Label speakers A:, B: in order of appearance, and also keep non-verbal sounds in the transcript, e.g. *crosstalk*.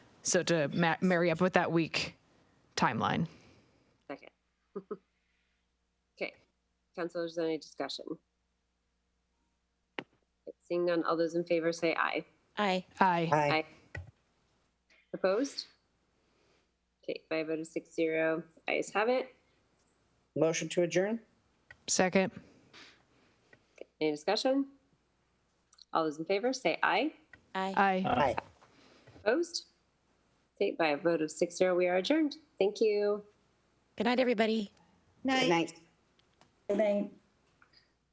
A: So to ma- marry up with that week timeline.
B: Second. *laughs* Okay, council, is there any discussion? Seeing none, all those in favor say aye.
C: Aye.
A: Aye.
D: Aye.
B: Opposed? Okay, by a vote of six zero, ayes have it.
D: Motion to adjourn?
A: Second.
B: Any discussion? All those in favor say aye.
C: Aye.
A: Aye.
D: Aye.
B: Opposed? Okay, by a vote of six zero, we are adjourned. Thank you.
C: Good night, everybody.
D: Good night.
E: Good night.